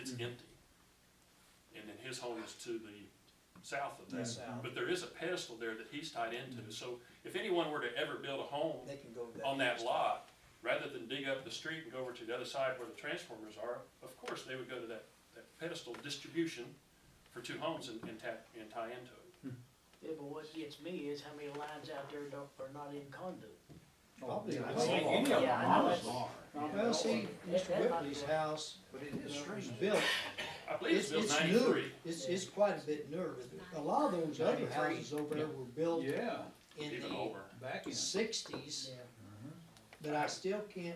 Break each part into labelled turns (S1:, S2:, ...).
S1: is empty. And then his home is to the south of
S2: Yeah.
S1: that.
S2: South.
S1: But there is a pedestal there that he's tied
S3: Mm-hmm.
S1: into, so if anyone were to ever build a home
S2: They can go to that.
S1: on that lot, rather than dig up the street and go over to the other side where the transformers are, of course, they would go to that, that pedestal distribution for two homes and, and tap, and tie into it.
S4: Yeah, but what gets me is how many lines out there don't, are not in conduit.
S2: Probably.
S3: I
S2: I
S3: think
S2: think
S3: any of
S4: Yeah,
S3: them
S4: I know
S3: ours
S4: it's-
S3: are.
S2: Well, see,
S4: That-
S2: Mr.
S4: that might
S2: Whitley's
S4: be-
S2: house,
S3: But it is
S2: uh, was
S3: strange.
S2: built,
S1: I believe it's
S2: it's,
S1: built
S2: it's
S1: ninety-three.
S2: newer, it's, it's quite a bit newer. A lot of those other houses over there were built
S3: Yeah,
S2: in
S1: Even
S2: the
S1: older.
S3: back in.
S2: sixties, but I still can't,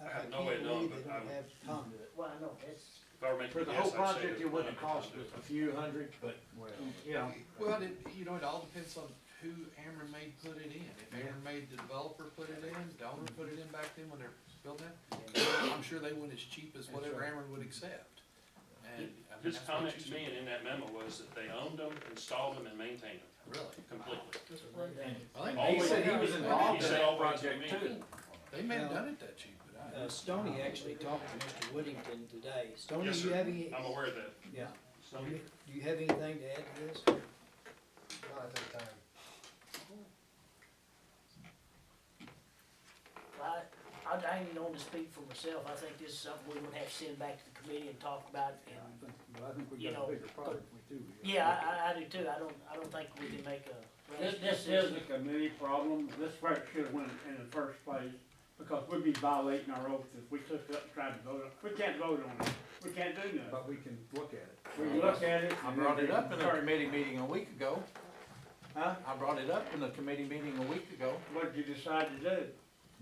S2: I
S1: I
S2: I
S1: have
S2: can't
S1: no way of knowing,
S2: believe they
S1: but
S2: don't
S1: I-
S2: have conduit.
S4: Well, I know, that's,
S1: If I were making
S3: For
S1: a
S3: the
S1: guess,
S3: whole
S1: I'd say
S3: project,
S1: that
S3: it wouldn't
S1: none
S3: cost
S1: of it
S3: us
S1: was
S3: a few hundred, but,
S5: Well,
S3: yeah.
S6: Well, it, you know, it all depends on who Ameren made put it in. If Ameren made the developer put it in, Donner put it in back then when they're building it, I'm sure they went as cheap as whatever Ameren would accept. And. I mean,
S1: His
S6: that's what
S1: comment
S6: you
S1: to me and in that memo was that they owned them, installed them, and maintained them
S6: should- Really?
S1: completely.
S4: that's a rundown.
S6: I think
S3: He
S1: Always-
S3: said "Oh, he was involved in
S1: said
S3: that
S1: always to
S3: project
S1: me.
S3: too.
S6: They may have done it that cheap, but I.
S2: Uh, Stoney actually talked to Mr. Whittington today. Stoney,
S1: Yes,
S2: you have any,
S1: sir. I'm aware of that.
S2: yeah,
S1: So
S2: do you have anything to add to this?
S4: I, I I ain't known to speak for myself, I think this is something we would have to send back to the committee and talk about and,
S3: But I think we
S4: You
S3: got
S4: know, uh,
S3: a bigger project we do.
S4: yeah, I, I, I do too, I don't, I don't think we can make a. rash
S7: This, this is a committee problem, this work should have went in the first place, because we'd be violating our oath if we took it up and tried to vote on, we can't vote on it, we can't do nothing.
S3: But we can look at it.
S7: We look at it.
S5: I brought it up in a
S7: and
S5: committee meeting a week ago.
S7: Huh?
S5: I brought it up in a committee meeting a week ago.
S7: What did you decide to do?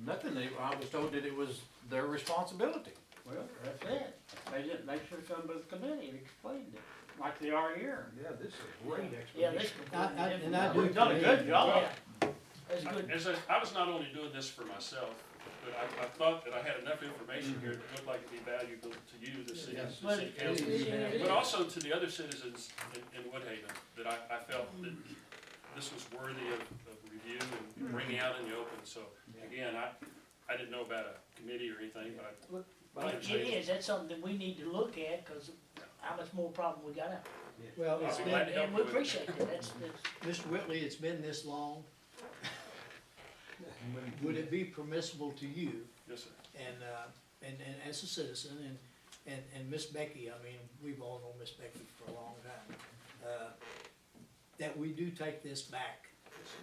S5: Nothing, They- I was told that it was their responsibility.
S7: Well, that's it, they didn't, they should have come to the committee and explained it, like they are here.
S3: Yeah, this is a great
S4: Yeah, this
S3: explanation.
S4: is
S2: I,
S4: completely
S2: I, and I
S4: different.
S2: do.
S7: We've done a good
S2: commend-
S7: job.
S4: Yeah. That's good,
S1: As I, I was not only doing this for myself, but I, I thought that I had enough information here that looked like it'd be valuable to you, the city, the city council. But also to the other citizens in, in Woodhaven, that I, I felt that this was worthy of, of review and bringing out in the open. So again, I, I didn't know about a committee or anything, but I.
S4: but it is, that's something that we need to look at, cause how much more problem we got out.
S2: Well,
S1: I'll
S2: it's
S1: be
S2: been,
S1: glad to help
S4: And
S1: you
S4: we
S1: with it.
S4: appreciate it, that's, that's.
S2: Mr. Whitley, it's been this long. Would it be permissible to you
S1: Yes, sir.
S2: and, uh, and, and as a citizen and, and, and Miss Becky, I mean, we've all known Miss Becky for a long time, uh, that we do take this back?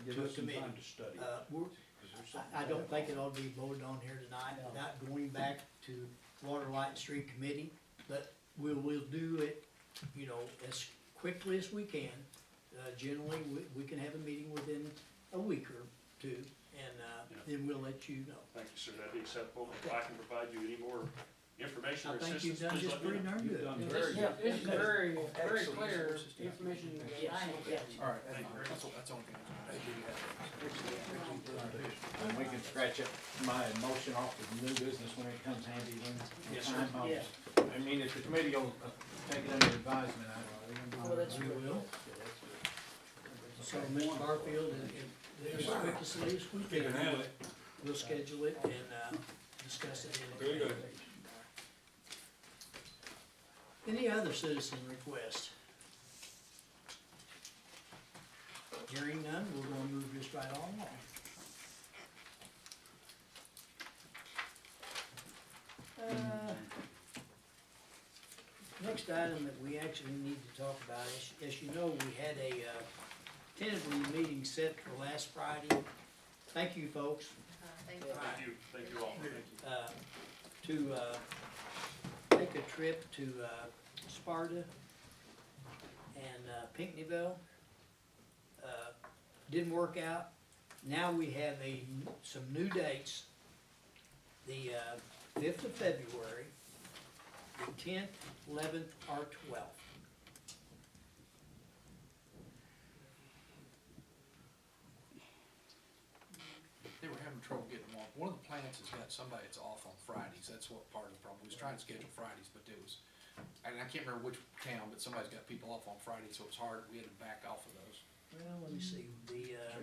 S3: Give
S2: to a
S3: us some time
S2: committee.
S3: to study.
S2: Uh, we're,
S3: 'cause there's something
S2: I, I don't
S3: going
S2: think it ought to be voted on here tonight,
S4: No.
S2: not going back to Water, Light and Street Committee, but we'll, we'll do it, you know, as quickly as we can. Uh, generally, we, we can have a meeting within a week or two, and, uh,
S1: Yeah.
S2: then we'll let you know.
S1: Thank you, sir. That'd be acceptable. If I can provide you any more information
S2: I
S1: or
S2: think
S1: assistance,
S2: you've done
S1: please
S2: just
S1: let me
S2: pretty
S1: know.
S2: darn
S3: You've done
S2: good.
S3: very
S2: Just-
S3: good.
S2: this is
S8: very, very
S3: Excellent.
S8: clear information
S4: Yeah, I ain't got you.
S5: All right.
S1: Thank you very much.
S6: That's, that's on.
S5: And we can scratch up my motion off of new business when it comes handy when. Yes, sir.
S4: Yeah.
S5: I mean, if the committee will uh, take it under advisement, I
S4: Well, that's
S2: We
S4: good.
S2: will. So Mr. Barfield, and, and as quick as it is, we can, we'll schedule it and, uh, discuss it in. Very good. Any other citizen request? Hearing none, we're gonna move this right on along. Uh, Next item that we actually need to talk about is, as you know, we had a uh, tentative meeting set for last Friday. Thank you, folks,
S9: Thank
S2: you.
S1: Thank you. Thank you all. Thank you.
S2: uh, to uh, take a trip to uh, Sparta and uh, Pinckneyville. Uh, Didn't work out. Now we have a, some new dates. The uh, fifth of February, the tenth, eleventh, or twelfth.
S6: They were having trouble getting them off. One of the plants has got somebody that's off on Fridays. That's what part of the problem. We was trying to schedule Fridays, but it was, and I can't remember which town, but somebody's got people off on Friday, so it's hard. We had to back off of those.
S2: Well, let me see, the, uh,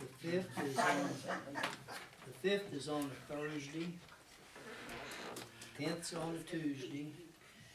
S2: the fifth is on, the fifth is on a Thursday, tenth's on a Tuesday,